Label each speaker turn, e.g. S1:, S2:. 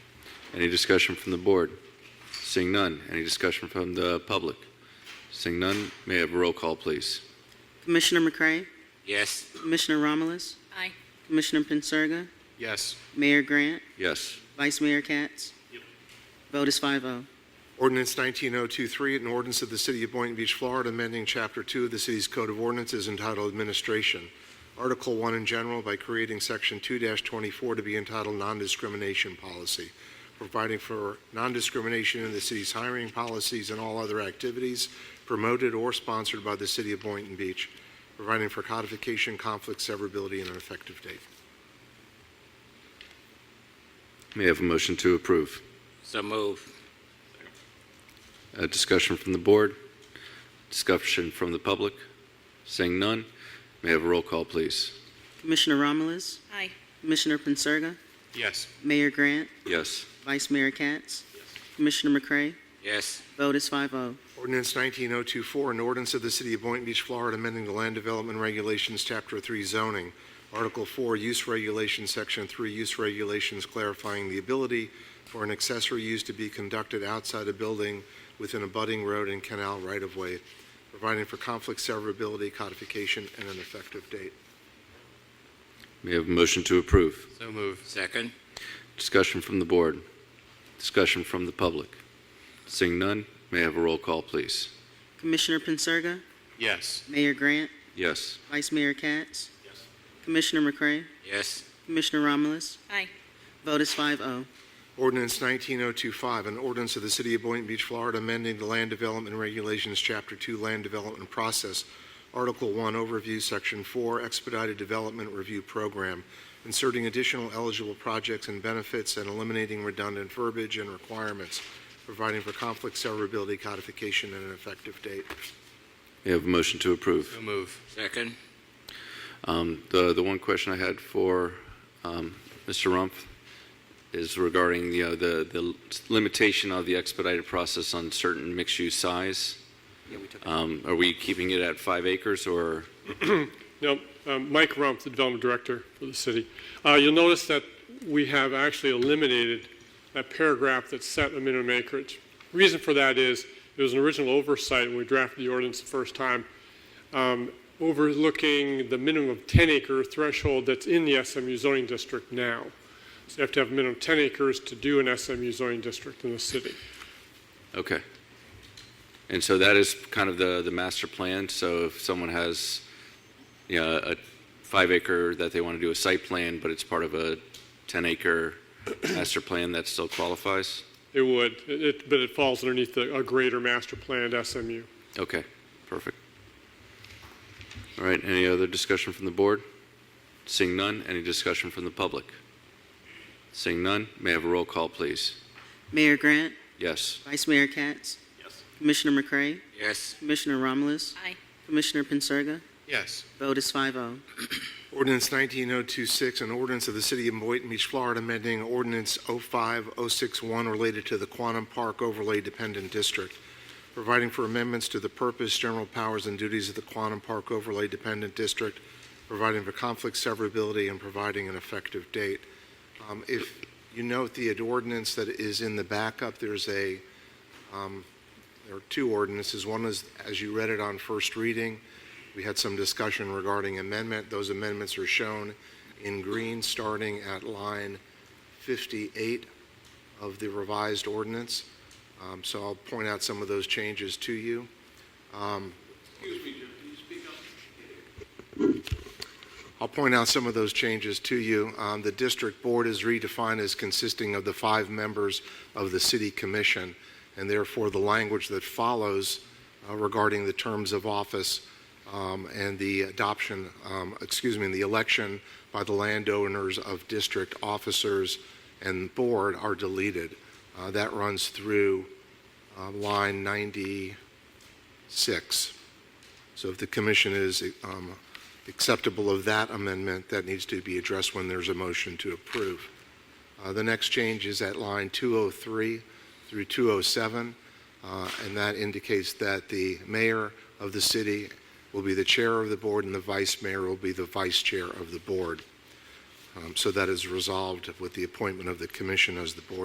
S1: Any discussion from the board? Seeing none. Any discussion from the public? Seeing none, may I have a roll call, please?
S2: Commissioner McCray,
S3: Yes.
S2: Commissioner Romulus,
S4: Aye.
S2: Commissioner Pincirga,
S3: Yes.
S2: Mayor Grant,
S1: Yes.
S2: Vice Mayor Katz. Vote is oh. 5-0.
S5: Ordinance 19023, an ordinance of the City of Boynton Beach, Florida, amending Chapter 2 of the city's Code of Ordinances entitled Administration, Article 1 in general by creating Section 2-24 to be entitled Non-Discrimination Policy, providing for non-discrimination in the city's hiring policies and all other activities promoted or sponsored by the City of Boynton Beach, providing for codification, conflict severability, and an effective date.
S1: May I have a motion to approve?
S3: So move.
S1: A discussion from the board? Discussion from the public? Seeing none, may I have a roll call, please?
S2: Commissioner Romulus,
S4: Aye.
S2: Commissioner Pincirga,
S3: Yes.
S2: Mayor Grant,
S1: Yes.
S2: Vice Mayor Katz. Commissioner McCray,
S3: Yes.
S2: vote is oh. 5-0.
S5: Ordinance 19024, an ordinance of the City of Boynton Beach, Florida, amending the Land Development Regulations, Chapter 3 zoning, Article 4 Use Regulations, Section 3 Use Regulations, clarifying the ability for an accessory use to be conducted outside a building within a budding road and canal right-of-way, providing for conflict severability, codification, and an effective date.
S1: May I have a motion to approve?
S3: So move. Second.
S1: Discussion from the board? Discussion from the public? Seeing none, may I have a roll call, please?
S2: Commissioner Pincirga,
S3: Yes.
S2: Mayor Grant,
S1: Yes.
S2: Vice Mayor Katz. Commissioner McCray,
S3: Yes.
S2: Commissioner Romulus,
S4: Aye.
S2: vote is oh. 5-0.
S5: Ordinance 19025, an ordinance of the City of Boynton Beach, Florida, amending the Land Development Regulations, Chapter 2 Land Development Process, Article 1 Overview, Section 4 Expedited Development Review Program, inserting additional eligible projects and benefits and eliminating redundant verbiage and requirements, providing for conflict severability, codification, and an effective date.
S1: May I have a motion to approve?
S3: move. Second.
S1: Um, The the one question I had for um, Mr. Rumpf is regarding, you know, the the limitation of the expedited process on certain mixed-use size. Um, Are we keeping it at five acres, or,
S6: No, um, Mike Rump, the Development Director for the city. Uh, You'll notice that we have actually eliminated that paragraph that set a minimum acreage. Reason for that is, it was an original oversight when we drafted the ordinance the first time, um, overlooking the minimum of 10-acre threshold that's in the SMU zoning district now. So you have to have a minimum of 10 acres to do an SMU zoning district in the city.
S1: okay. And so that is kind of the the master plan, so if someone has, you know, a five acre that they want to do a site plan, but it's part of a 10 acre master plan, that still qualifies?
S6: It would, it- it- but it falls underneath the- a greater master planned SMU.
S1: Okay, perfect. All right, any other discussion from the board? Seeing none, any discussion from the public? Seeing none, may I have a roll call, please?
S2: Mayor Grant,
S1: Yes.
S2: Vice Mayor Katz. Commissioner McCray,
S3: Yes.
S2: Commissioner Romulus,
S4: Aye.
S2: Commissioner Pincirga,
S3: Yes.
S2: vote is oh. 5-0.
S5: Ordinance 19026, an ordinance of the City of Boynton Beach, Florida, amending Ordinance 05061 related to the Quantum Park Overlay Dependent District, providing for amendments to the purpose, general powers, and duties of the Quantum Park Overlay Dependent District, providing for conflict severability, and providing an effective date. Um, If you note the ordinance that is in the backup, there's a, um, there are two ordinances. One is, as you read it on first reading, we had some discussion regarding amendment. Those amendments are shown in green, starting at line 58 of the revised ordinance. Um, So I'll point out some of those changes to you. Um, I'll point out some of those changes to you. Um, The district board is redefined as consisting of the five members of the city commission, and therefore the language that follows uh, regarding the terms of office um, and the adoption, um, excuse me, the election by the landowners of district officers and board are deleted. Uh, That runs through uh, line 96. So if the commission is um, acceptable of that amendment, that needs to be addressed when there's a motion to approve. Uh, The next change is at line 203 through 207, uh, and that indicates that the mayor of the city will be the chair of the board and the vice mayor will be the vice chair of the board. Um, So that is resolved with the appointment of the commission as the board